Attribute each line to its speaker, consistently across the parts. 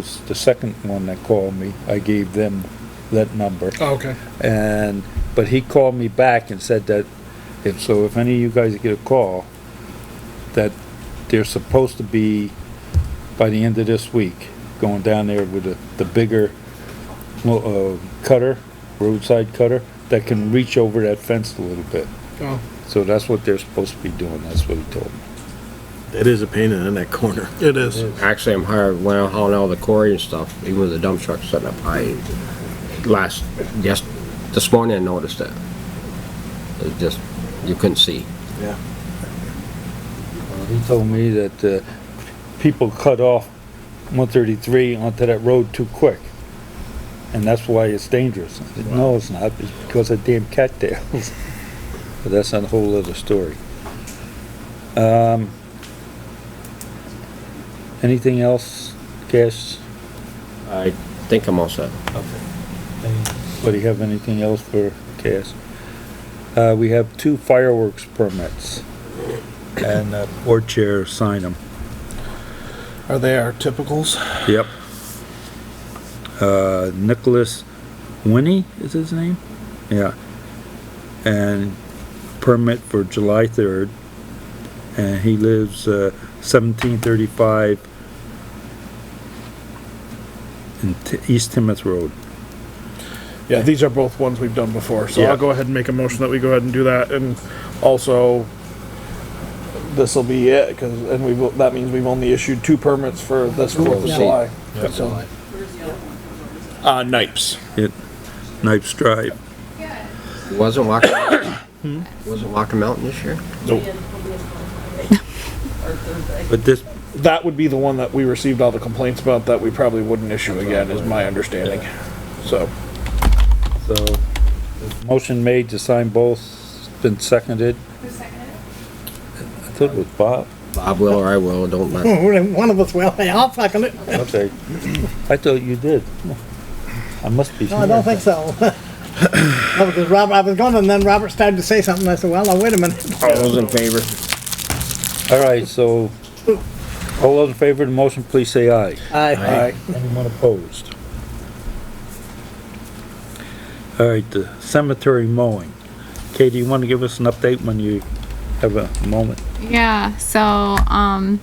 Speaker 1: was the second one that called me, I gave them that number.
Speaker 2: Oh, okay.
Speaker 1: And, but he called me back and said that, if, so if any of you guys get a call, that they're supposed to be, by the end of this week, going down there with the, the bigger, lo- uh, cutter, roadside cutter, that can reach over that fence a little bit.
Speaker 2: Oh,
Speaker 1: So that's what they're supposed to be doing, that's what he told me.
Speaker 3: It is a pain in that corner.
Speaker 2: it is.
Speaker 4: Actually, I'm hired, when I was hauling all the quarry and stuff, even with the dump truck setting up, I last, just, this morning I noticed that. It just, you couldn't see.
Speaker 3: Yeah.
Speaker 1: He told me that, uh, people cut off one thirty-three onto that road too quick. And that's why it's dangerous. I said, no, it's not, it's because of damn cattails. But that's a whole other story. Um, anything else, Cash?
Speaker 4: I think I'm all set.
Speaker 1: Anybody have anything else for Cass? Uh, we have two fireworks permits. And uh, board chair signed them.
Speaker 2: Are they our typicals?
Speaker 1: Yep. Uh, Nicholas Winnie is his name? Yeah. And permit for July third. And he lives, uh, seventeen thirty-five in T- East Timoth Road.
Speaker 2: Yeah, these are both ones we've done before, so
Speaker 1: Yeah.
Speaker 2: I'll go ahead and make a motion that we go ahead and do that, and also, this'll be it, cause, and we've, that means we've only issued two permits for this Fourth of
Speaker 4: Yeah.
Speaker 2: July. So- Uh, Nipes.
Speaker 1: It, Knife's Drive.
Speaker 4: Wasn't Walker, wasn't Walker Mountain this year?
Speaker 2: Nope.
Speaker 1: But this,
Speaker 2: That would be the one that we received all the complaints about that we probably wouldn't issue again, is my understanding, so.
Speaker 1: So, there's a motion made to sign both, it's been seconded. I thought it was Bob.
Speaker 4: Bob will or I will, don't let.
Speaker 5: Oh, One of us will, hey, I'll second it.
Speaker 1: Okay. I thought you did. I must be.
Speaker 5: No, I don't think so. No, because Robert, I was going and then Robert started to say something, I said, well, now wait a minute.
Speaker 4: All those in favor?
Speaker 1: All right, so, all those in favor of the motion, please say aye.
Speaker 5: Aye.
Speaker 1: Anyone opposed? All right, the cemetery mowing. Katie, you want to give us an update when you have a moment?
Speaker 6: Yeah, so, um,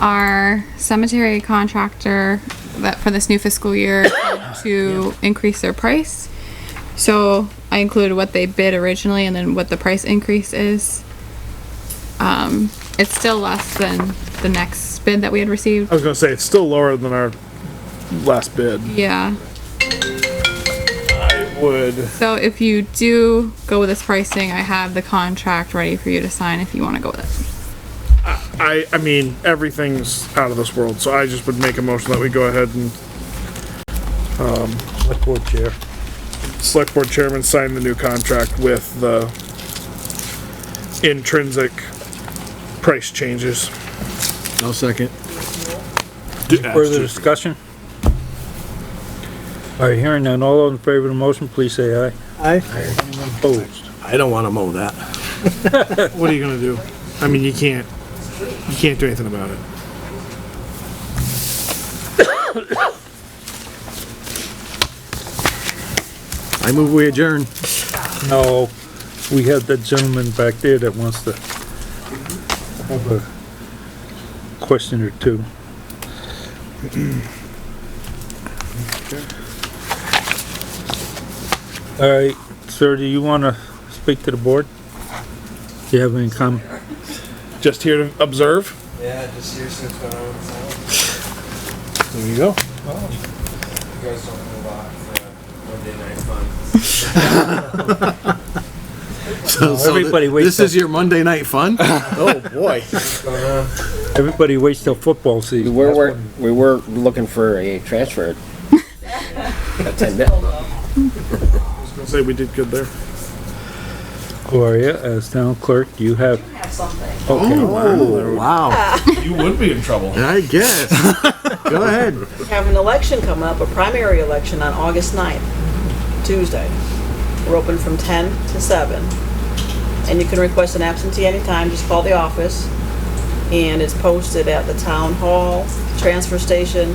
Speaker 6: our cemetery contractor that for this new fiscal year to increase their price. So I included what they bid originally and then what the price increase is. Um, it's still less than the next bid that we had received.
Speaker 2: I was gonna say, it's still lower than our last bid.
Speaker 6: Yeah,
Speaker 2: I would,
Speaker 6: so if you do go with this pricing, I have the contract ready for you to sign if you wanna go with it.
Speaker 2: I, I mean, everything's out of this world, so I just would make a motion that we go ahead and
Speaker 1: Select board chair.
Speaker 2: select board chairman signed the new contract with the intrinsic price changes.
Speaker 3: No second.
Speaker 1: Further discussion? All right, hearing none, all those in favor of the motion, please say aye.
Speaker 5: Aye.
Speaker 1: Opposed?
Speaker 3: I don't wanna mow that.
Speaker 2: What are you gonna do? I mean, you can't, you can't do anything about it.
Speaker 3: I move we adjourn.
Speaker 1: No, we have that gentleman back there that wants to have a question or two. All right, sir, do you want to speak to the board? Do you have any comment?
Speaker 2: Just here to observe?
Speaker 7: Yeah, just here since going on with sound.
Speaker 2: There you go.
Speaker 7: You guys don't know about uh, Monday night fun. uh,
Speaker 3: So- so
Speaker 1: everybody
Speaker 3: th-
Speaker 1: waits
Speaker 3: This is your Monday night fun? Oh, boy.
Speaker 1: Everybody waits till football
Speaker 4: We
Speaker 1: season.
Speaker 4: were, wor- we were looking for a transfer. That's it.
Speaker 2: I was gonna say, we did good there.
Speaker 1: Gloria, as town clerk, you have. Okay,
Speaker 3: Oh, wow.
Speaker 2: You would be in trouble.
Speaker 3: I guess. Go ahead.
Speaker 8: We have an election come up, a primary election on August 9th, Tuesday. We're open from 10 to 7. And you can request an absentee anytime, just call the office. And it's posted at the town hall, transfer station,